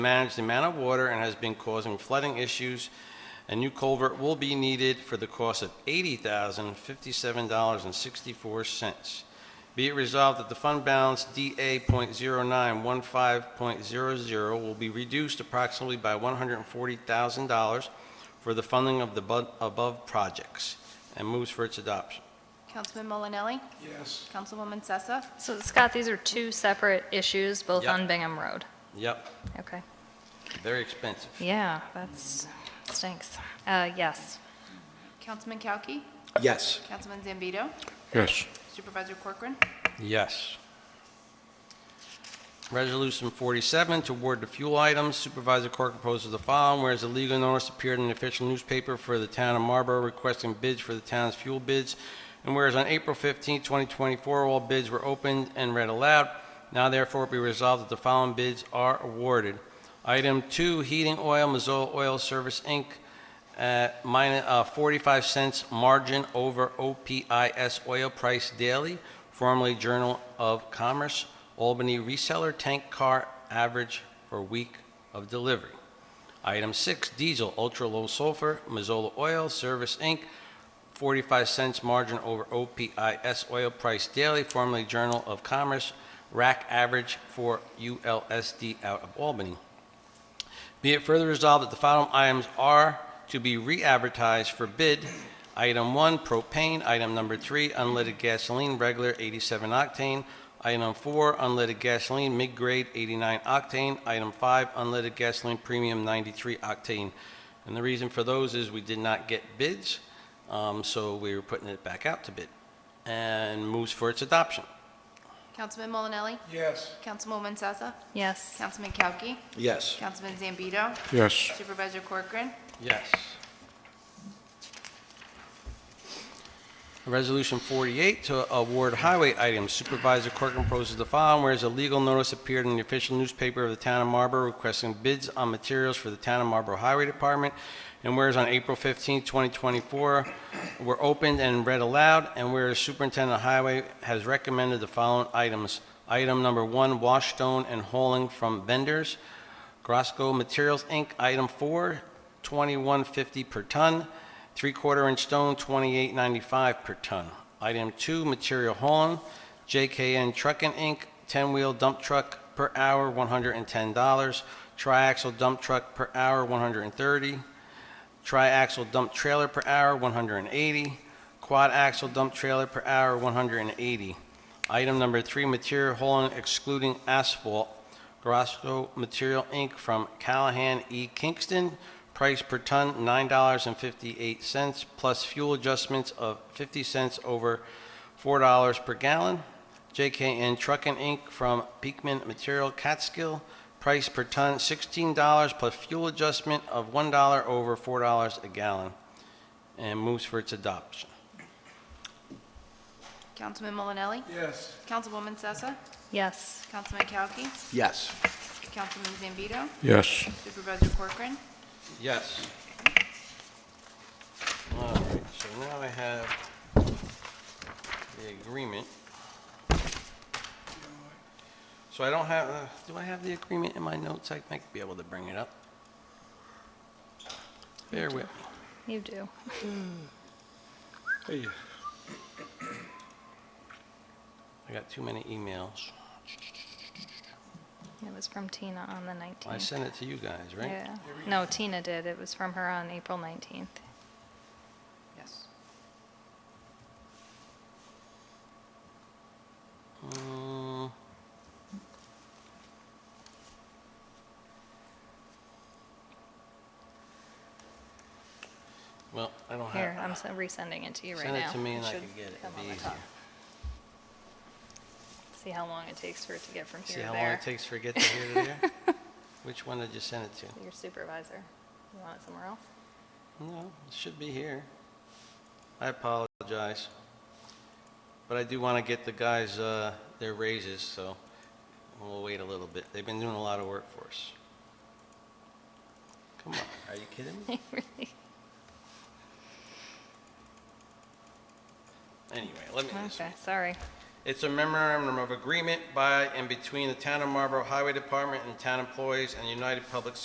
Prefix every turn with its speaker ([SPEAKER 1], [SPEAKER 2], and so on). [SPEAKER 1] manage the amount of water and has been causing flooding issues. A new culvert will be needed for the cost of $80,057.64. Be it resolved that the fund balance DA.0915.00 will be reduced approximately by $140,000 for the funding of the bu- above projects, and moves for its adoption.
[SPEAKER 2] Councilman Molinelli?
[SPEAKER 3] Yes.
[SPEAKER 2] Councilwoman Sessa?
[SPEAKER 4] So Scott, these are two separate issues, both
[SPEAKER 1] Yep.
[SPEAKER 4] on Bingham Road.
[SPEAKER 1] Yep,
[SPEAKER 4] Okay.
[SPEAKER 1] very expensive.
[SPEAKER 4] Yeah, that's, stinks. Uh, yes.
[SPEAKER 2] Councilman Kauki?
[SPEAKER 3] Yes.
[SPEAKER 2] Councilman Zambito?
[SPEAKER 3] Yes.
[SPEAKER 2] Supervisor Corcoran?
[SPEAKER 1] Yes. Resolution 47, to award the fuel items. Supervisor Corr proposes the following. Whereas a legal notice appeared in the official newspaper for the town of Marlborough requesting bids for the town's fuel bids, and whereas on April 15, 2024, all bids were opened and read aloud, now therefore be resolved that the following bids are awarded. Item 2, heating oil, Mazola Oil Service, Inc., at minus, uh, 45 cents margin over OPIS oil price daily, formerly Journal of Commerce, Albany reseller tank car average for week of delivery. Item six, diesel, ultra-low sulfur, Mazola Oil, Service Inc., 45 cents margin over OPIS oil price daily, formerly Journal of Commerce, rack average for ULSD out of Albany. Be it further resolved that the following items are to be re-advertised for bid. Item one, propane. Item number three, unleaded gasoline, regular 87 octane. Item four, unleaded gasoline, mid-grade 89 octane. Item five, unleaded gasoline, premium 93 octane. And the reason for those is we did not get bids, um, so we were putting it back out to bid. And moves for its adoption.
[SPEAKER 2] Councilman Molinelli?
[SPEAKER 3] Yes.
[SPEAKER 2] Councilwoman Sessa?
[SPEAKER 4] Yes.
[SPEAKER 2] Councilman Kauki?
[SPEAKER 3] Yes.
[SPEAKER 2] Councilman Zambito?
[SPEAKER 3] Yes.
[SPEAKER 2] Supervisor Corcoran?
[SPEAKER 1] Yes. Resolution 48 to award highway items. Supervisor Corcoran proposes the following, whereas a legal notice appeared in the official newspaper of the town of Marlborough requesting bids on materials for the town of Marlborough Highway Department, and whereas on April 15, 2024, were opened and read aloud, and whereas Superintendent of Highway has recommended the following items. Item number one, wash stone and hauling from vendors. Grosco Materials, Inc., item four, 2150 per ton, three-quarter inch stone, 2895 per ton. Item two, material hauling, JKN Trucking, Inc., 10-wheel dump truck per hour, $110. Triaxle dump truck per hour, 130. Tri-axle dump trailer per hour, 180. Quad axle dump trailer per hour, 180. Item number three, material hauling excluding asphalt, Garasco Material Inc. from Callahan E. Kingston, price per ton $9.58, plus fuel adjustments of 50 cents over $4 per gallon. JKN Trucking Inc. from Peakman Material Catskill, price per ton $16, plus fuel adjustment of $1 over $4 a gallon, and moves for its adoption.
[SPEAKER 2] Councilman Molinelli?
[SPEAKER 3] Yes.
[SPEAKER 2] Councilwoman Sessa?
[SPEAKER 4] Yes.
[SPEAKER 2] Councilman Kauki?
[SPEAKER 3] Yes.
[SPEAKER 2] Councilman Zambito?
[SPEAKER 3] Yes.
[SPEAKER 2] Supervisor Corcoran?
[SPEAKER 1] Yes. All right, so now I have the agreement. So I don't have, uh, do I have the agreement in my notes? I might be able to bring it up. Bear with me.
[SPEAKER 4] You do.
[SPEAKER 1] I got too many emails.
[SPEAKER 4] It was from Tina on the 19th.
[SPEAKER 1] I sent it to you guys, right?
[SPEAKER 4] Yeah. No, Tina did. It was from her on April 19th.
[SPEAKER 2] Yes.
[SPEAKER 1] Mm. Well, I don't have.
[SPEAKER 4] Here, I'm s- resending it to you right now.
[SPEAKER 1] Send it to me and I
[SPEAKER 4] should
[SPEAKER 1] can get it.
[SPEAKER 4] come
[SPEAKER 1] It'd be
[SPEAKER 4] on the
[SPEAKER 1] easier.
[SPEAKER 4] top. See how long it takes for it to get from
[SPEAKER 1] See
[SPEAKER 4] here
[SPEAKER 1] how
[SPEAKER 4] to
[SPEAKER 1] long
[SPEAKER 4] there.
[SPEAKER 1] it takes for it to get to here to there? Which one did you send it to?
[SPEAKER 4] Your supervisor. You want it somewhere else?
[SPEAKER 1] No, it should be here. I apologize. But I do want to get the guys uh, their raises, so we'll wait a little bit. They've been doing a lot of work for us. Come on, are you kidding me?
[SPEAKER 4] Really?
[SPEAKER 1] Anyway, let me, this
[SPEAKER 4] Okay, sorry.
[SPEAKER 1] It's a memorandum of agreement by and between the Town of Marlborough Highway Department and town employees and United Public